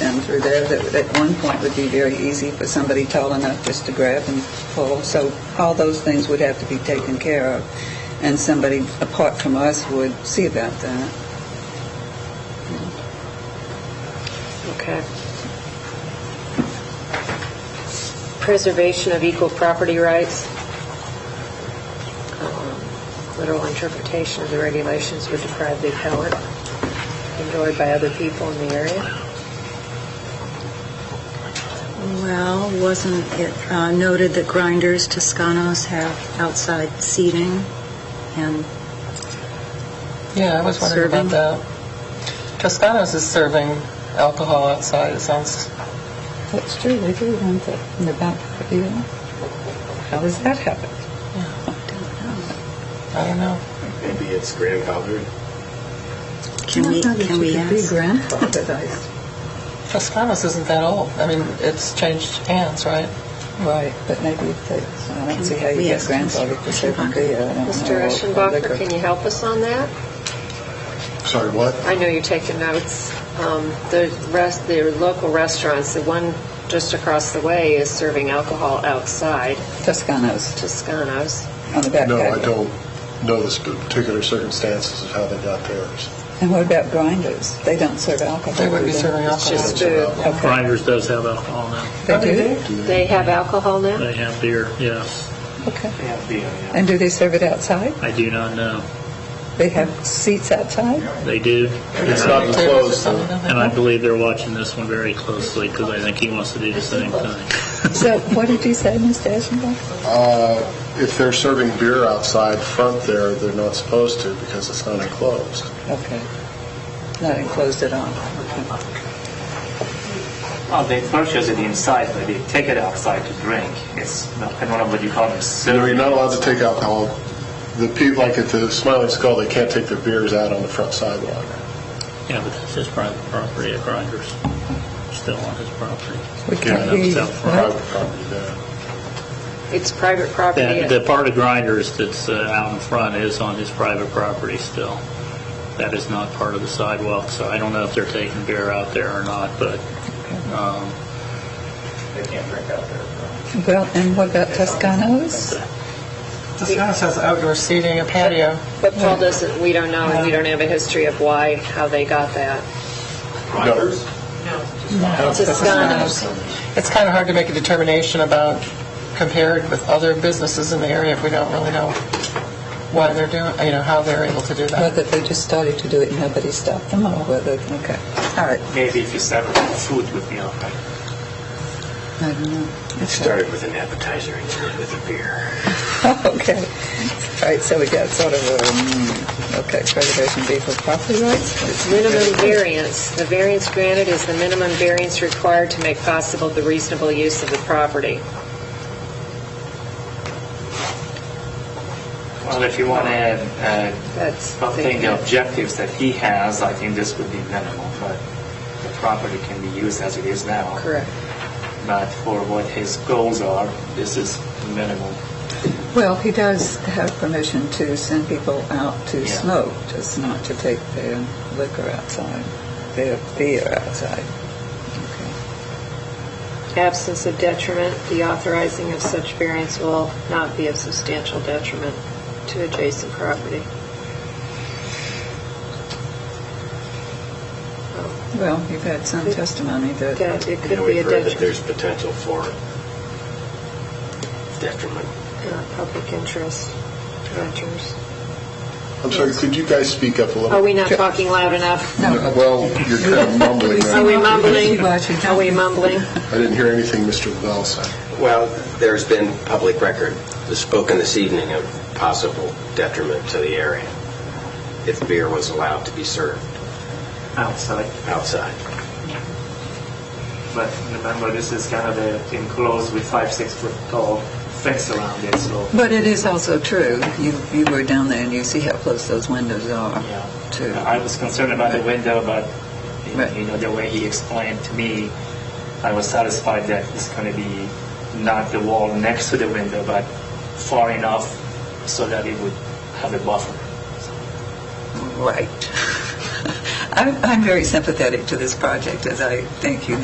come through there that at one point would be very easy for somebody tall enough just to grab and pull. So all those things would have to be taken care of, and somebody apart from us would see about that. Okay. Preservation of equal property rights. Um, Literal interpretation of the regulations would deprive the appellant enjoyed by other people in the area. Well, wasn't it uh, noted that grinders, Toscanos have outside seating and Yeah, I was wondering Serving? about that. Toscano's is serving alcohol outside, it sounds, That's true, they do want that in the back, you know. How does that happen? I don't know. Maybe it's grandfathered. can we, can we ask? Toscano's isn't that old. I mean, it's changed hands, right? Right, but maybe if they, I don't see how we you get ask grandfathered for certain beer. I don't Mr. know, or Eschenbacher, liquor. can you help us on that? Sorry, what? I know you're taking notes. Um, The rest, the local restaurants, the one just across the way is serving alcohol outside, Toscano's Toscano's. on the back No, I patio. don't know the sp- particular circumstances of how they got theirs. And what about grinders? They don't serve alcohol. They would be do serving It's alcohol. just food. Okay, Grinders does have alcohol now. they do? Do They have alcohol now? They have beer, yes. Okay. And do they serve it outside? I do not know. They have seats outside? They do. It's And I- not enclosed, though. And I believe they're watching this one very closely because I think he wants to do the same thing. So what did you say, Mr. Eschenbacher? Uh, If they're serving beer outside front there, they're not supposed to because it's not enclosed. Okay. Not enclosed at all. Oh, they purchase it inside, but they take it outside to drink. It's not, I don't know what you call it. You know, you're serving. not allowed to take alcohol. The people, like at the Smiling Skull, they can't take their beers out on the front sidewalk. Yeah, but that's his private property at Grinders. Still on his property. We Yeah, can't that's hear you. out front. Private property there. It's private property. That, the part of Grinders that's uh, out in front is on his private property still. That is not part of the sidewalk, so I don't know if they're taking beer out there or not, but, um, They can't drink out there. Well, and what about Toscano's? Toscano's has outdoor seating, a patio. But Paul doesn't, we don't know, and we don't have a history of why, how they got that. Grinders? Toscano's. It's kind of hard to make a determination about compared with other businesses in the area if we don't really know why they're doing, you know, how they're able to do that. Whether they just started to do it and nobody stopped them or whether, okay. All right, Maybe if you serve it with food would be all right. I don't know. It started with an appetizer and ended with a beer. Okay. All right, so we got sort of, um, okay, preservation of equal property rights. Minimum variance, the variance granted is the minimum variance required to make possible the reasonable use of the property. Well, if you want to add, uh, That's Oh, I think the the objectives that he has, I think this would be minimal, but the property can be used as it is now. correct. But for what his goals are, this is minimal. Well, he does have permission to send people out to Yeah. smoke, just not to take their liquor outside, their beer outside. Absence of detriment, the authorizing of such variance will not be of substantial detriment to adjacent property. Well, you've had some testimony that, That it You could know, be a we've heard that detriment, there's potential for detriment. not public interest, renters. I'm sorry, could you guys speak up a little? Are Oh, we not talking loud enough? Well, you're kind of mumbling. Are we there. mumbling? Are we mumbling? I didn't hear anything Mr. Lavelle said. Well, there's been public record spoken this evening of possible detriment to the area if beer was allowed to be served Outside. outside. But remember, this is kind of a enclosed with five, six foot tall fence around it, so. but it is also true, you, you were down there and you see how close those windows are Yeah, to, I was concerned about the window, but, you know- Right. you know, the way he explained to me, I was satisfied that it's going to be not the wall next to the window, but far enough so that it would have a buffer. right. I'm, I'm very sympathetic to this project, as I think you